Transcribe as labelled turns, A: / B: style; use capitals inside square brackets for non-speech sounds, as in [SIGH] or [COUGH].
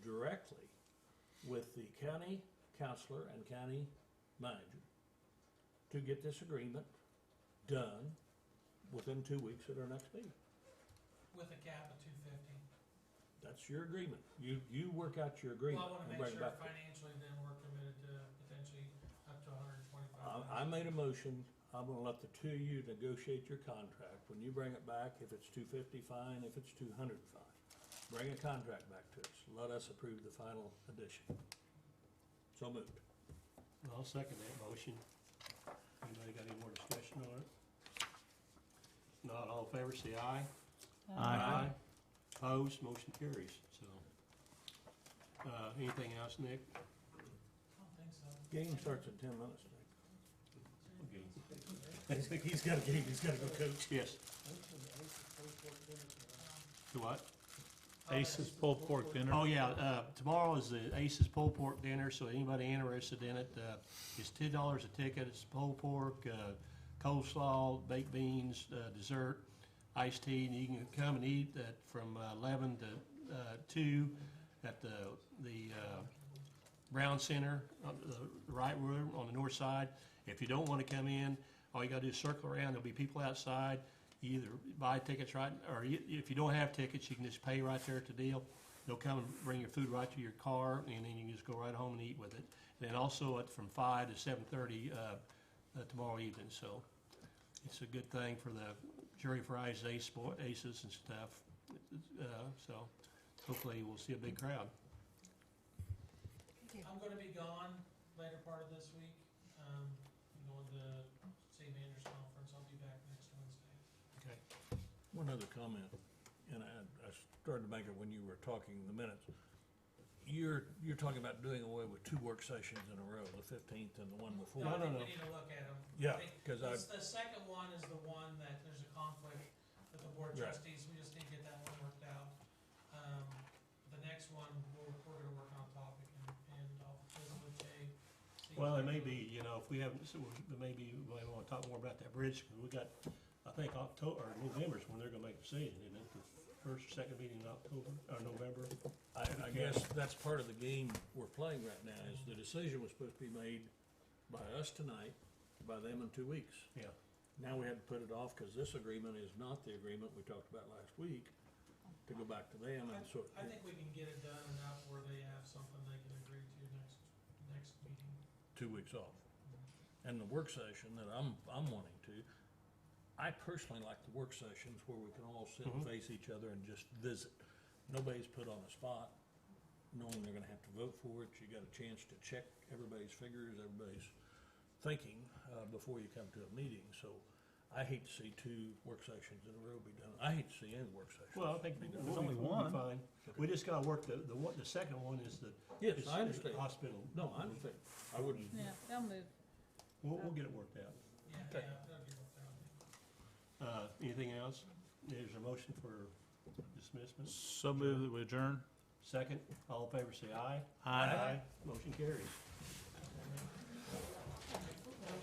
A: with the county counselor and county manager to get this agreement done within two weeks at our next meeting.
B: With a cap of two fifty.
A: That's your agreement. You, you work out your agreement.
B: Well, I wanna
A: and
B: make
A: bring it
B: sure
A: back to-
B: financially then we're committed to potentially up to a hundred and twenty-five.
A: I, I made a motion, I'm gonna let the two of you negotiate your contract, when you bring it back, if it's two fifty, fine, if it's two hundred, fine. Bring a contract back to us, let us approve the final addition. So moved.
C: I'll second that motion. Anybody got any more discussion on it? Not all in favor, say aye. Opposed, motion carries, so. Uh, anything else, Nick?
B: I don't think so.
A: Game starts in ten minutes, [LAUGHS] Nick.
C: Okay.
A: He's got a game, he's gotta go coach.
C: Yes,
B: uh,
C: to what?
D: Ace's pulled pork dinner.
C: Oh, yeah, uh, tomorrow is the Aces Pulled Pork Dinner, so anybody interested in it, uh, it's ten dollars a ticket, it's pulled pork, uh, coleslaw, baked beans, uh, dessert, iced tea, and you can come and eat that from uh, eleven to, uh, two at the, the, uh, Brown Center, on the right room on the north side. If you don't wanna come in, all you gotta do is circle around, there'll be people outside, You either buy tickets right, or you- if you don't have tickets, you can just pay right there at the deal. They'll come and bring your food right to your car, and then you can just go right home and eat with it. Then also at from five to seven thirty, uh, uh, tomorrow evening, so it's a good thing for the jury fries, ace, sport- aces and stuff, uh, so hopefully we'll see a big crowd.
B: I'm gonna be gone later part of this week, um, I'm going to city manager's conference, I'll be back next Wednesday.
C: Okay.
A: One other comment, and I, I started to make it when you were talking the minutes. You're, you're talking about doing away with two work sessions in a row, the fifteenth and the one before.
B: No, I
C: No,
B: think we
C: no, no.
B: need to look at them.
A: Yeah, 'cause I-
B: The second one is the one that there's a conflict with the board
A: Right.
B: trustees, we just need to get that one worked out. Um, the next one, we're, we're gonna work on topic and, and I'll visit with Jay. see-
C: Well, it may be, you know, if we haven't, so we- maybe we wanna talk more about that bridge, 'cause we got, I think October, or November's when they're gonna make a decision, isn't it? The First, or second meeting in October, or November?
A: I, I guess that's part of the game we're playing right now, is the decision was supposed to be made by us tonight, by them in two weeks.
C: Yeah.
A: Now we had to put it off, cause this agreement is not the agreement we talked about last week, to go back to them, and so.
B: I think we can get it done enough where they have something they can agree to next, next meeting.
A: Two weeks off. And the work session that I'm, I'm wanting to, I personally like the work sessions where we can all sit and
C: Mhm.
A: face each other and just visit. Nobody's put on the spot, knowing they're gonna have to vote for it, you got a chance to check everybody's figures, everybody's thinking, uh, before you come to a meeting, so I hate to see two work sessions in a row be done, I hate to see any work session.
C: Well, I think we'll
A: There's
C: be-
D: only
C: we'll be
D: one.
C: fine. We just gotta work, the, the one, the second one is the.
A: Yes,
C: is-
A: I
C: is the
A: understand,
C: Hospital.
A: no, I understand, I wouldn't,
D: Yeah, they'll move.
C: We'll, we'll get it worked out.
B: Yeah,
A: Okay.
B: yeah, that'll be worked out.
C: Uh, anything else? There's a motion for dismissal.
D: So move that we adjourn.
C: Second, all in favor, say aye.
D: Aye.
C: Motion carries.